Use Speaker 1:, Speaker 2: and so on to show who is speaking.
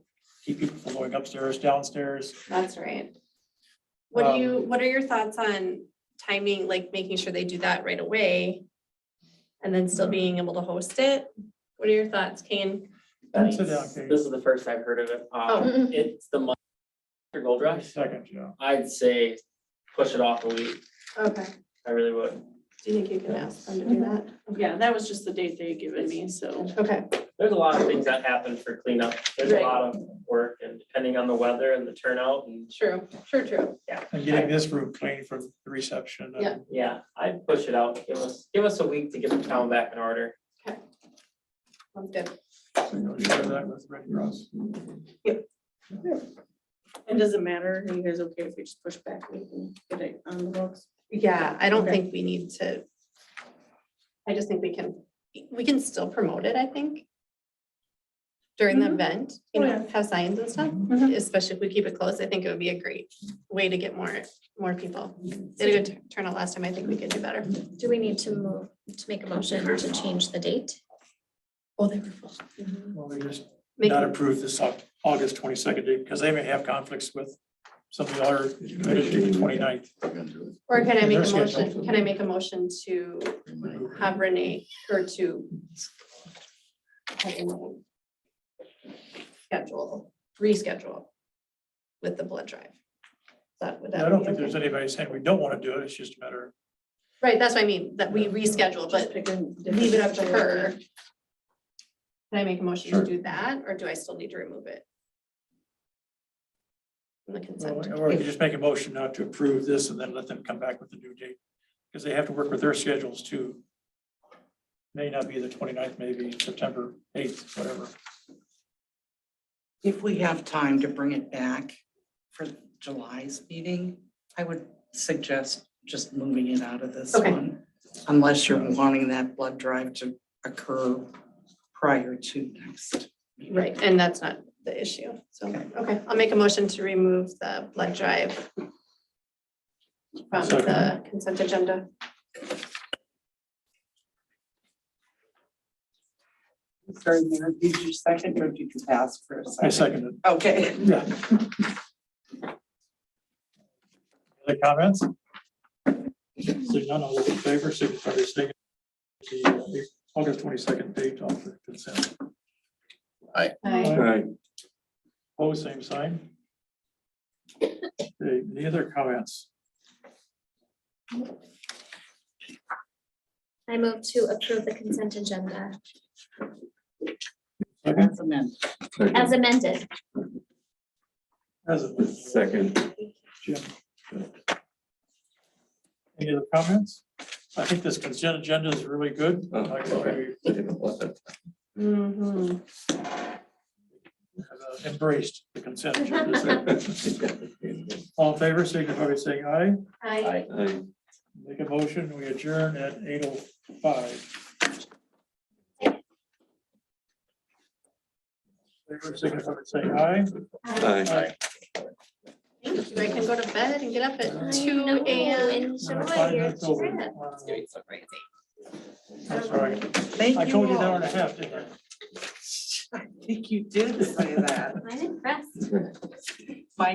Speaker 1: keep people from going upstairs, downstairs.
Speaker 2: That's right. What do you, what are your thoughts on timing, like making sure they do that right away? And then still being able to host it? What are your thoughts, Kane?
Speaker 1: That's it,
Speaker 3: Nice.
Speaker 1: okay.
Speaker 3: This is the first I've heard of it. Um,
Speaker 2: Oh.
Speaker 3: It's the month after Gold Rush.
Speaker 1: Second, yeah.
Speaker 3: I'd say push it off a week.
Speaker 2: Okay.
Speaker 3: I really would.
Speaker 2: Do you think you can ask them to do that?
Speaker 4: Yeah, that was just the date they had given me, so.
Speaker 2: Okay,
Speaker 3: There's a lot of things that happen for cleanup. There's a
Speaker 2: Right.
Speaker 3: lot of work and depending on the weather and the turnout and
Speaker 2: true, sure, true.
Speaker 3: yeah.
Speaker 1: And getting this room clean for the reception. and-
Speaker 2: Yeah.
Speaker 3: Yeah, I'd push it out. Give us, give us a week to get the town back in order.
Speaker 2: Sounds good.
Speaker 1: So you'll share that with Red Cross.
Speaker 4: It doesn't matter. Are you guys okay if we just push back a week and get it on the books?
Speaker 2: Yeah, I don't
Speaker 4: Okay.
Speaker 2: think we need to. I just think we can, we can still promote it, I think. During the
Speaker 4: Mhm.
Speaker 2: event, you
Speaker 4: Oh,
Speaker 2: know, have signs and stuff, especially if we keep it close, I think it would be a great way to get more, more people. Did a good tu- turnout last time, I think we could do better.
Speaker 5: Do we need to move, to make a motion to change the date?
Speaker 2: Oh, they were full.
Speaker 1: Well, we just
Speaker 2: Make,
Speaker 1: not approve this Au- August twenty-second date because they may have conflicts with some of the other, the 29th.
Speaker 2: or can I make
Speaker 1: Their
Speaker 2: a
Speaker 1: schedule.
Speaker 2: motion, can I make a motion to have Renee, or to have Renee schedule, reschedule with the blood drive? That would. that
Speaker 1: I don't
Speaker 2: be
Speaker 1: think
Speaker 2: okay?
Speaker 1: there's anybody saying we don't want to do it. It's just a matter of
Speaker 2: Right, that's what I mean, that we reschedule, but leave it up to her. Can I make a motion
Speaker 1: Sure.
Speaker 2: to do that, or do I still need to remove it? From the consent,
Speaker 1: Or we could just make a motion not to approve this and then let them come back with a new date, because they have to work with their schedules too. May not be the 29th, maybe September eighth, whatever.
Speaker 6: If we have time to bring it back for July's meeting, I would suggest just moving it out of this
Speaker 2: Okay.
Speaker 6: one. Unless you're wanting that blood drive to occur prior to next. meeting.
Speaker 2: right, and that's not the issue, so, okay, I'll make a motion to remove the blood drive from the
Speaker 1: Second.
Speaker 2: consent agenda.
Speaker 6: Sorry, Mayor, did you second or did you ask for a
Speaker 1: I second
Speaker 6: second?
Speaker 1: it.
Speaker 6: Okay.
Speaker 1: Yeah. Other comments? Seeing none, all those in favor, signify by saying the uh, August twenty-second date off the consent.
Speaker 2: Aye.
Speaker 1: Opposed, same sign. Okay, Any other comments?
Speaker 5: I move to approve the consent agenda
Speaker 6: That's amended.
Speaker 5: as amended.
Speaker 1: As of this.
Speaker 7: Second.
Speaker 1: Any other comments? I think this consent agenda is really good. I like the way we
Speaker 2: Mhm.
Speaker 1: have uh, Embraced the consent agenda. All in favor, signify by saying aye.
Speaker 5: Aye.
Speaker 7: Aye.
Speaker 1: Make a motion, we adjourn at eight oh five. Favor, signify by saying aye.
Speaker 7: Aye.
Speaker 2: Thank you, I can go to bed and get up
Speaker 1: I
Speaker 2: at two
Speaker 5: know,
Speaker 2: AM.
Speaker 1: Nine
Speaker 5: Enjoy
Speaker 1: o'clock,
Speaker 5: your
Speaker 1: that's over.
Speaker 5: trip.
Speaker 1: Wow.
Speaker 2: so crazy.
Speaker 1: That's right.
Speaker 6: Thank
Speaker 1: I
Speaker 6: you.
Speaker 1: told you an
Speaker 6: all.
Speaker 1: hour and a half, didn't I?
Speaker 6: I think you did say that.
Speaker 5: I'm impressed.